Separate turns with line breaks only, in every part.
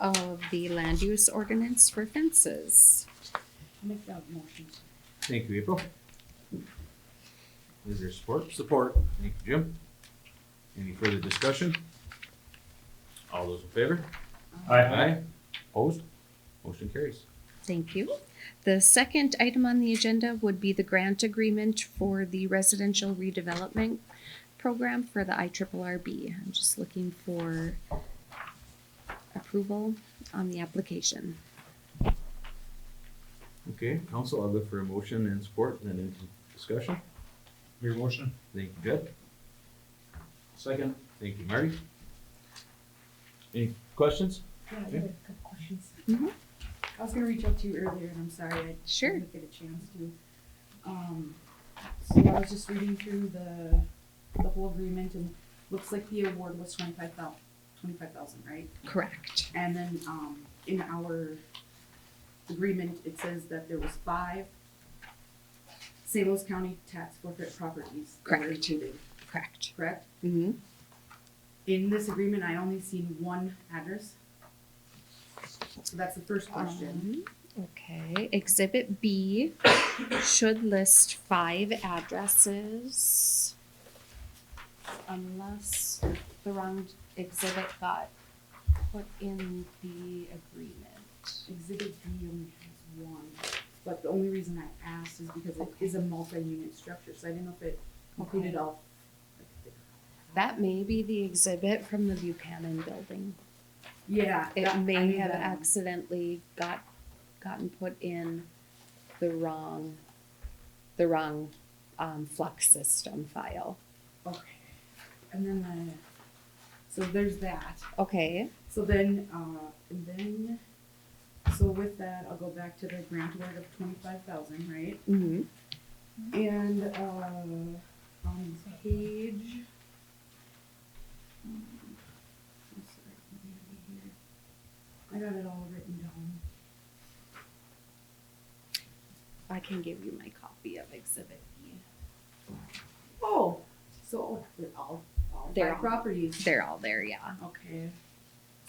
of the land use ordinance for fences.
Make that motion.
Thank you, April. Is there support? Support. Thank you, Jim. Any further discussion? All those in favor? Aye. Opposed? Motion carries.
Thank you. The second item on the agenda would be the grant agreement for the residential redevelopment program for the IRRRB. I'm just looking for approval on the application.
Okay, council, I'll look for a motion and support, and then into discussion.
Your motion?
Thank you, Jed. Second. Thank you, Marty. Any questions?
Yeah, I have a couple questions.
Mhm.
I was gonna reach out to you earlier, and I'm sorry, I
Sure.
didn't get a chance to. Um, so I was just reading through the, the whole agreement, and looks like the award was twenty-five thou- twenty-five thousand, right?
Correct.
And then, um, in our agreement, it says that there was five St. Louis County tax forfeit properties that were
Correct.
included,
Correct.
correct?
hmm
In this agreement, I only seen one address. So that's the first question.
Um, Okay, exhibit B should list five addresses. Unless the wrong exhibit got put in the agreement.
Exhibit B only has one, but the only reason I asked is because it is a multi-unit structure, so I didn't know if it included
Okay.
all.
That may be the exhibit from the Buchanan building.
Yeah.
It
that- I
may
knew
have
that one.
accidentally got, gotten put in the wrong, the wrong, um, flux system file.
Okay. And then, uh, so there's that.
Okay,
So then, uh, and then, so with that, I'll go back to the grant award of twenty-five thousand, right?
mhm,
And uh, on page. um, I'm sorry, I got it all written down.
I can give you my copy of exhibit B.
Oh, so they're all, all
They're
five
all-
properties.
They're all there, yeah.
Okay.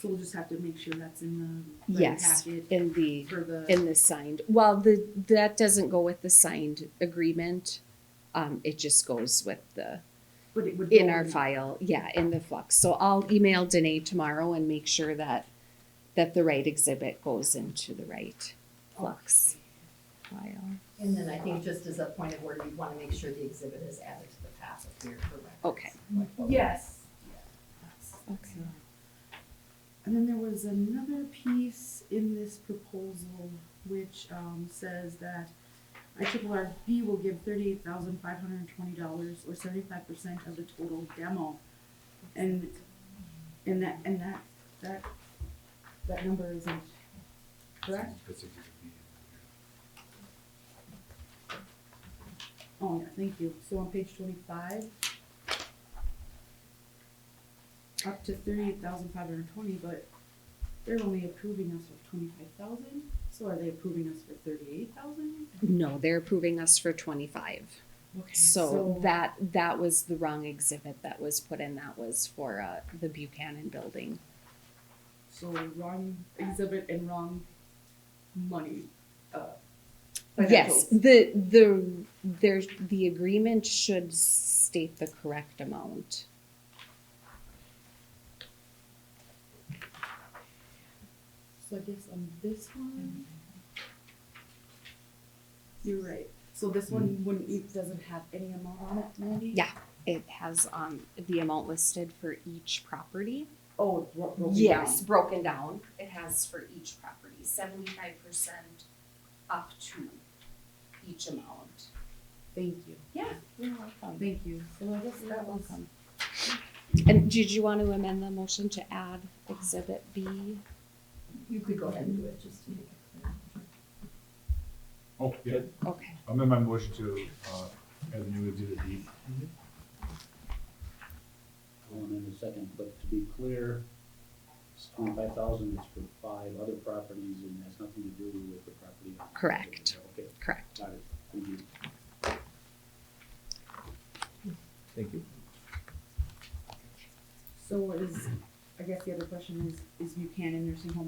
So we'll just have to make sure that's in the right
Yes,
packet
in the,
for the.
in the signed, well, the, that doesn't go with the signed agreement. Um, it just goes with the,
But it would.
in
go
our file, yeah, in the flux. So I'll email Danae tomorrow and make sure that, that the right exhibit goes into the right flux file.
And then I think just as a point of order, you want to make sure the exhibit is added to the path if you're correct.
Okay.
Yes.
Okay.
And then there was another piece in this proposal which um, says that IRRB will give thirty-eight thousand five hundred and twenty dollars or seventy-five percent of the total demo. And, and that, and that, that, that number isn't correct? Oh, yeah, thank you. So on page twenty-five. Up to thirty-eight thousand five hundred and twenty, but they're only approving us for twenty-five thousand, so are they approving us for thirty-eight thousand?
No, they're approving us for twenty-five. So that, that was the wrong exhibit that was put in. That was for, uh, the Buchanan building.
So wrong exhibit and wrong money, uh.
Yes,
financials.
the, the, there's, the agreement should state the correct amount.
So I guess on this one. You're right. So this one wouldn't, it doesn't have any amount on it, Mandy?
Yeah. It has, um, the amount listed for each property.
Oh, it bro- broken
Yes,
down.
broken down. It has for each property, seventy-five percent up to each amount.
Thank you.
Yeah, you're welcome.
Thank you. So I guess that was.
And did you want to amend the motion to add exhibit B?
You could go ahead and do it, just to make it clear.
Oh, yeah,
Okay,
I'm in my motion to, uh, have the new exhibit D.
Going in a second, but to be clear, it's twenty-five thousand is for five other properties and has nothing to do with the property. on-
Correct.
Okay,
correct.
got it, thank you.
Thank you.
So is, I guess the other question is, is Buchanan Nursing Home